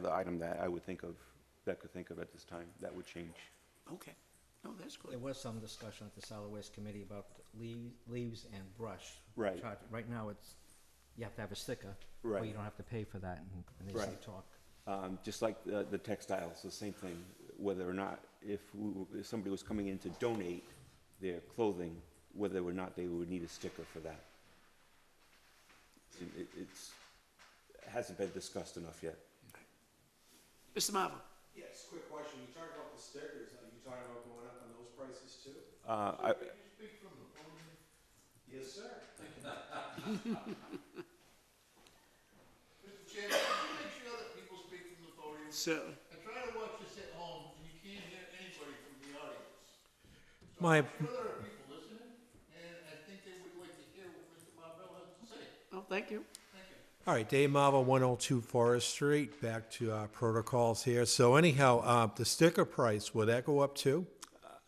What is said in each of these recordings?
the item that I would think of, that I could think of at this time, that would change. Okay, no, that's good. There was some discussion at the solid waste committee about lea- leaves and brush. Right. charge. Right now, it's, you have to have a sticker. Or Right. you don't have to pay for that, and- and there's some Right. talk. Um, Just like the the textiles, the same thing, whether or not, if we- if somebody was coming in to donate their clothing, whether or not they would need a sticker for that. It- it- It's, it hasn't been discussed enough yet. Mr. Marvel, Yes, quick question, you talked about the stickers, are you talking about going up on those prices too? Uh, I- Yes, sir. Mr. Chairman, can you make sure that people speak from the podium? so, I try to watch this at home, and you can't hear anybody from the audience. My, I'm sure there are people listening, and I think they would like to hear what Mr. Marvell has to say. oh, thank you. all right, Dave Marvel, 102 Forest Street, back to our protocols here. So anyhow, uh, the sticker price, will that go up too?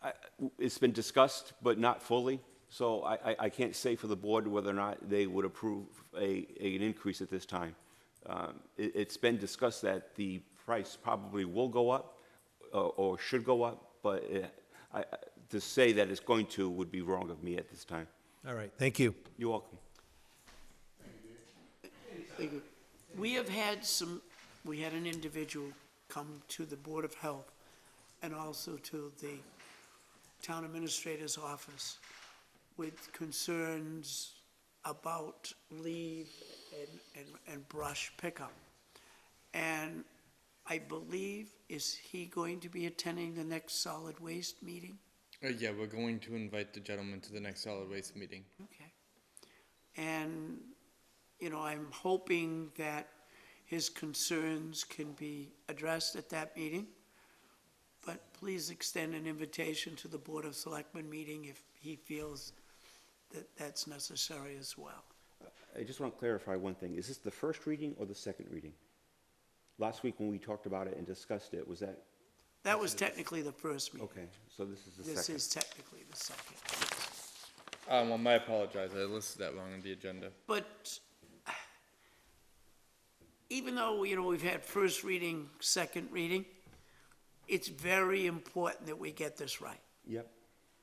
I- It's been discussed, but not fully, so I, I- I can't say for the board whether or not they would approve a, a- an increase at this time. Um, It, it's been discussed that the price probably will go up, uh, or should go up, but uh, I, I- to say that it's going to would be wrong of me at this time. All right, thank you. You're welcome. Thank you. We have had some, we had an individual come to the Board of Health and also to the Town Administrator's Office with concerns about leave and, and, and brush pickup. And I believe, is he going to be attending the next solid waste meeting? Uh, yeah, we're going to invite the gentleman to the next solid waste meeting. Okay. And, you know, I'm hoping that his concerns can be addressed at that meeting. But please extend an invitation to the Board of Selectmen meeting if he feels that that's necessary as well. I just want to clarify one thing. Is this the first reading or the second reading? Last week when we talked about it and discussed it, was that, That was technically the first meeting. okay, so this is the second? This is technically the second. Um, well, my apologize. I listed that wrong on the agenda. But even though, you know, we've had first reading, second reading, it's very important that we get this right. Yep,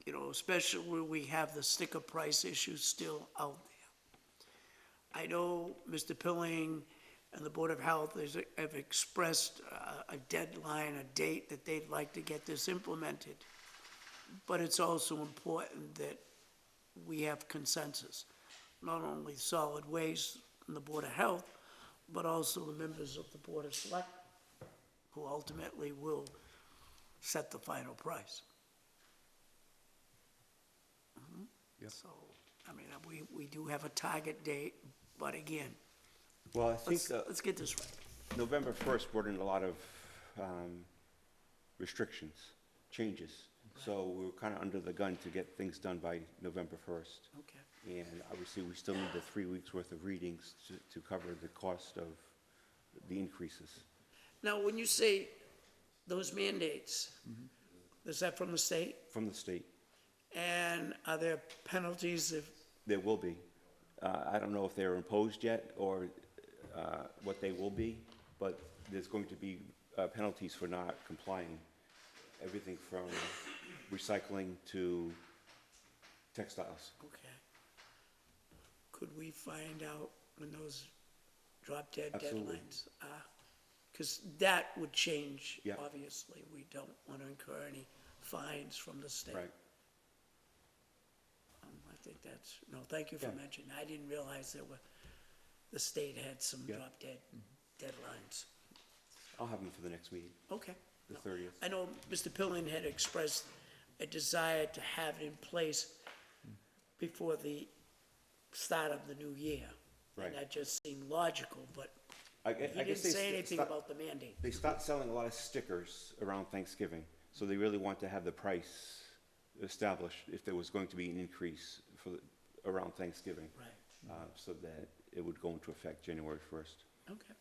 you know, especially where we have the sticker price issue still out there. I know Mr. Pilling and the Board of Health is, have expressed uh, a deadline, a date that they'd like to get this implemented. But it's also important that we have consensus, not only solid waste and the Board of Health, but also the members of the Board of Select, who ultimately will set the final price. So, I mean, uh, we, we do have a target date, but again, well, I think. let's, uh, let's get this right. November 1st brought in a lot of um, restrictions, changes. So we were kind of under the gun to get things done by November 1st. Okay. And obviously, we still need the three weeks' worth of readings to- to cover the cost of the increases. Now, when you say those mandates, Mm-hmm. is that from the state? From the state, And are there penalties if, there will be. Uh, I don't know if they're imposed yet or uh, what they will be, but there's going to be uh, penalties for not complying. Everything from recycling to textiles. okay. Could we find out when those drop dead Absolutely. deadlines are? Because that would change, Yeah. obviously. We don't want to incur any fines from the state. Right. Um, I think that's, no, thank you for Yeah. mentioning. I didn't realize there were, the state had some Yeah. Mm-hmm. drop dead deadlines. I'll have them for the next meeting. Okay. The No. 30th. I know Mr. Pilling had expressed a desire to have it in place Mm. before the start of the new year. Right. And that just seemed logical, but I, he didn't say anything about the mandate. They start selling a lot of stickers around Thanksgiving, so they really want to have the price established if there was going to be an increase for, the- around Thanksgiving. Right. Uh, so that it would go into effect January first. Okay.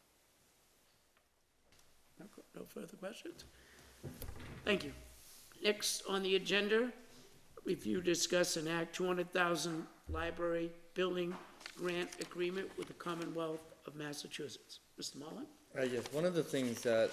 No que- No further questions? Thank you. Next on the agenda, review, discuss, and act two hundred thousand library building grant agreement with the Commonwealth of Massachusetts. Mr. Mullin? Uh, yes, one of the things that